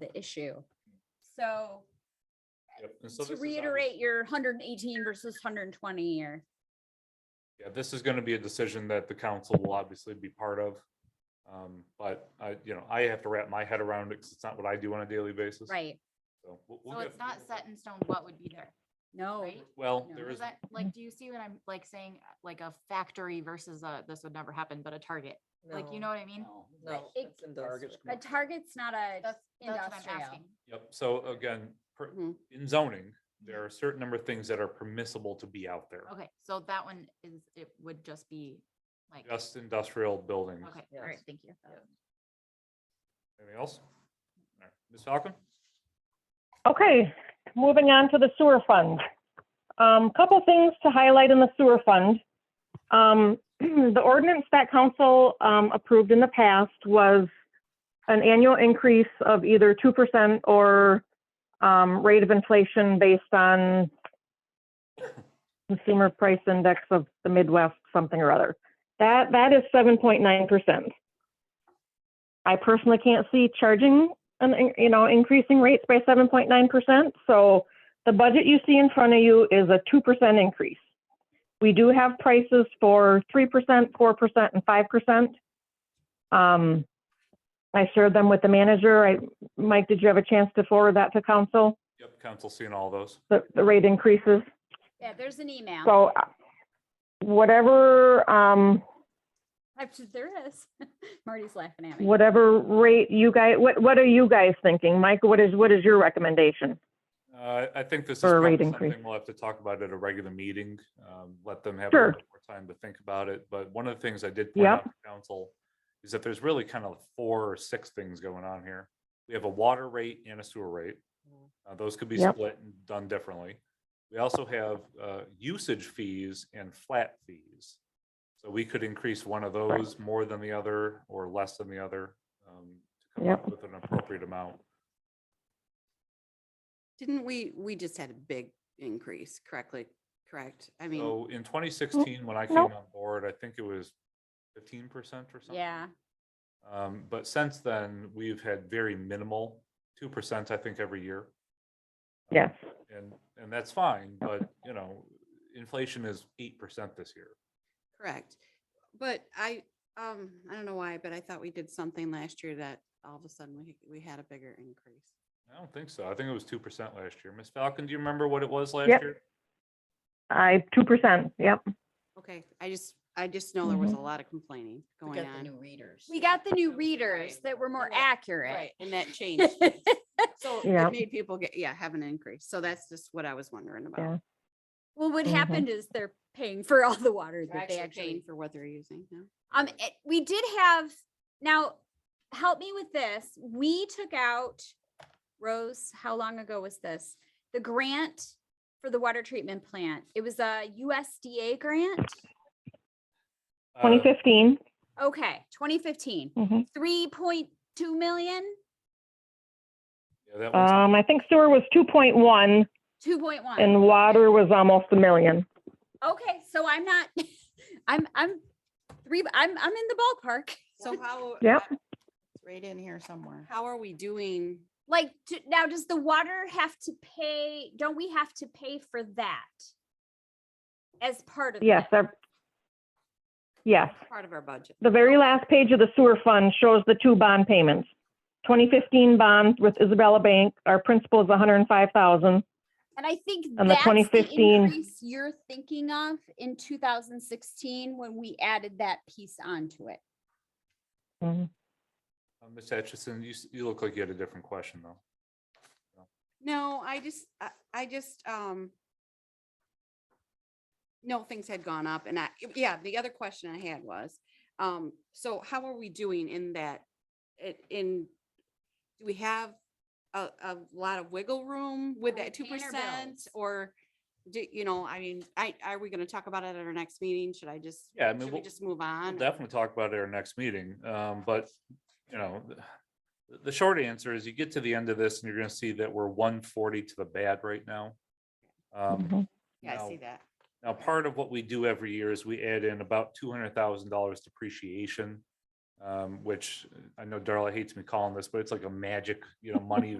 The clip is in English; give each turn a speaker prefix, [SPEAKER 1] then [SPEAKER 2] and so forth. [SPEAKER 1] the issue. So
[SPEAKER 2] Yep, and so
[SPEAKER 1] to
[SPEAKER 2] this is
[SPEAKER 1] reiterate
[SPEAKER 2] obvious-
[SPEAKER 1] your hundred and eighteen versus hundred and twenty or
[SPEAKER 2] Yeah, this is gonna be a decision that the council will obviously be part of. Um, but I, you know, I have to wrap my head around it because it's not what I do on a daily basis.
[SPEAKER 1] right,
[SPEAKER 2] So we'll- we'll
[SPEAKER 3] So
[SPEAKER 2] get-
[SPEAKER 3] it's not set in stone what would be there,
[SPEAKER 1] no,
[SPEAKER 3] right?
[SPEAKER 2] Well,
[SPEAKER 1] No.
[SPEAKER 2] there
[SPEAKER 3] Is
[SPEAKER 2] is,
[SPEAKER 3] that, like, do you see what I'm like saying, uh, like a factory versus a, this would never happen, but a Target? Like, you know what I mean?
[SPEAKER 4] No.
[SPEAKER 1] it-
[SPEAKER 4] that's industrial.
[SPEAKER 1] a target's not a
[SPEAKER 3] That's, that's what I'm
[SPEAKER 1] industrial.
[SPEAKER 3] asking.
[SPEAKER 2] yep, so again, per-
[SPEAKER 1] Mhm.
[SPEAKER 2] in zoning, there are a certain number of things that are permissible to be out there.
[SPEAKER 3] Mm-hmm. Okay, so that one is, it would just be like, okay,
[SPEAKER 2] Just industrial buildings.
[SPEAKER 3] all right,
[SPEAKER 4] Yes.
[SPEAKER 3] thank you.
[SPEAKER 4] Yeah.
[SPEAKER 2] Anything else? All right, Ms. Falcon?
[SPEAKER 5] Okay, moving on to the sewer fund. Um, couple things to highlight in the sewer fund. Um, the ordinance that council, um, approved in the past was an annual increase of either two percent or, um, rate of inflation based on consumer price index of the Midwest, something or other. That, that is seven point nine percent. I personally can't see charging an, in- you know, increasing rates by 7.9%. So the budget you see in front of you is a 2% increase. We do have prices for 3%, 4%, and 5%. Um, I shared them with the manager. I, Mike, did you have a chance to forward that to council,
[SPEAKER 2] Yep, council seeing all those.
[SPEAKER 5] the, the rate increases?
[SPEAKER 1] Yeah, there's an email.
[SPEAKER 5] So uh, whatever, um,
[SPEAKER 1] Actually, There is. Marty's laughing at me.
[SPEAKER 5] whatever rate you guys, what, what are you guys thinking? Mike, what is, what is your recommendation?
[SPEAKER 2] Uh, I think this is
[SPEAKER 5] For a
[SPEAKER 2] probably
[SPEAKER 5] rate increase.
[SPEAKER 2] something we'll have to talk about at a regular meeting. Um, let them have a
[SPEAKER 5] Sure.
[SPEAKER 2] little bit more time to think about it. But one of the things I did point
[SPEAKER 5] Yep.
[SPEAKER 2] out to council is that there's really kind of four or six things going on here. We have a water rate and a sewer rate. Uh, those could be
[SPEAKER 5] Yep.
[SPEAKER 2] split and done differently. We also have, uh, usage fees and flat fees. So we could increase one of those more than the other or less than the other, um, to come up with an appropriate amount.
[SPEAKER 6] Didn't we, we just had a big increase, correctly, correct? I mean,
[SPEAKER 2] So in twenty sixteen, when I came
[SPEAKER 5] nope.
[SPEAKER 2] on board, I think it was fifteen percent or something.
[SPEAKER 1] Yeah,
[SPEAKER 2] Um, but since then, we've had very minimal, two percent, I think, every year.
[SPEAKER 5] Yes.
[SPEAKER 2] And, and that's fine, but, you know, inflation is eight percent this year.
[SPEAKER 6] correct. But I, um, I don't know why, but I thought we did something last year that all of a sudden we, we had a bigger increase.
[SPEAKER 2] I don't think so. I think it was two percent last year. Ms. Falcon, do you remember what it was last
[SPEAKER 5] Yep.
[SPEAKER 2] year?
[SPEAKER 5] I, 2%, yep.
[SPEAKER 6] Okay, I just, I just know there was a lot of complaining
[SPEAKER 4] We
[SPEAKER 6] going
[SPEAKER 4] got the
[SPEAKER 6] on.
[SPEAKER 4] new readers.
[SPEAKER 1] we got the new readers that were more
[SPEAKER 6] Right.
[SPEAKER 1] accurate.
[SPEAKER 6] Right, and that changed. things. So
[SPEAKER 5] Yeah.
[SPEAKER 6] it made people get, yeah, have an increase. So that's just what I was wondering
[SPEAKER 5] Yeah.
[SPEAKER 6] about.
[SPEAKER 1] Well, what
[SPEAKER 5] Mhm.
[SPEAKER 1] happened is they're paying for all the water
[SPEAKER 6] They're
[SPEAKER 1] that they
[SPEAKER 6] actually
[SPEAKER 1] actually
[SPEAKER 6] paying for what they're using now.
[SPEAKER 1] Um, it- we did have, now, help me with this. We took out, Rose, how long ago was this? The grant for the water treatment plant. It was a USDA grant.
[SPEAKER 2] Uh,
[SPEAKER 5] 2015.
[SPEAKER 1] Okay, 2015,
[SPEAKER 5] Mhm.
[SPEAKER 1] 3.2 million,
[SPEAKER 2] yeah, that one's-
[SPEAKER 5] Um, I think sewer was 2.1
[SPEAKER 1] 2.1.
[SPEAKER 5] and water was almost a million.
[SPEAKER 1] Okay, so I'm not, I'm, I'm three, I'm, I'm in the ballpark.
[SPEAKER 6] So how?
[SPEAKER 5] Yep.
[SPEAKER 3] It's Right in here somewhere.
[SPEAKER 6] How are we doing?
[SPEAKER 1] Like, do- now does the water have to pay, don't we have to pay for that? As part of?
[SPEAKER 5] Yes,
[SPEAKER 1] that?
[SPEAKER 5] that- yes.
[SPEAKER 6] Part of our budget.
[SPEAKER 5] The very last page of the sewer fund shows the two bond payments. 2015 bond with Isabella Bank, our principal is 105,000.
[SPEAKER 1] And I think
[SPEAKER 5] the
[SPEAKER 1] that's the
[SPEAKER 5] 2015
[SPEAKER 1] increase you're thinking of in two thousand sixteen when we added that piece onto it.
[SPEAKER 2] uh, Ms. Hutchison, you, s- you look like you had a different question, though.
[SPEAKER 6] No, I just, I- I just, um, no, things had gone up and I, yeah, the other question I had was, um, so how are we doing in that? i- In, do we have a, a lot of wiggle room with
[SPEAKER 1] Our
[SPEAKER 6] that two
[SPEAKER 1] retainer
[SPEAKER 6] percent?
[SPEAKER 1] bills.
[SPEAKER 6] Or do, you know, I mean, I, are we gonna talk about it at our next meeting? Should I just,
[SPEAKER 2] Yeah, I mean,
[SPEAKER 6] should we
[SPEAKER 2] we'll-
[SPEAKER 6] just move
[SPEAKER 2] We'll
[SPEAKER 6] on?
[SPEAKER 2] definitely talk about it at our next meeting, um, but, you know, th- the, short answer is you get to the end of this and you're gonna see that we're one forty to the bad right now. Um,
[SPEAKER 5] Mhm.
[SPEAKER 6] Yeah, I see
[SPEAKER 2] now-
[SPEAKER 6] that.
[SPEAKER 2] Now, part of what we do every year is we add in about two hundred thousand dollars depreciation um, which I know Darla hates me calling this, but it's like a magic, you know, money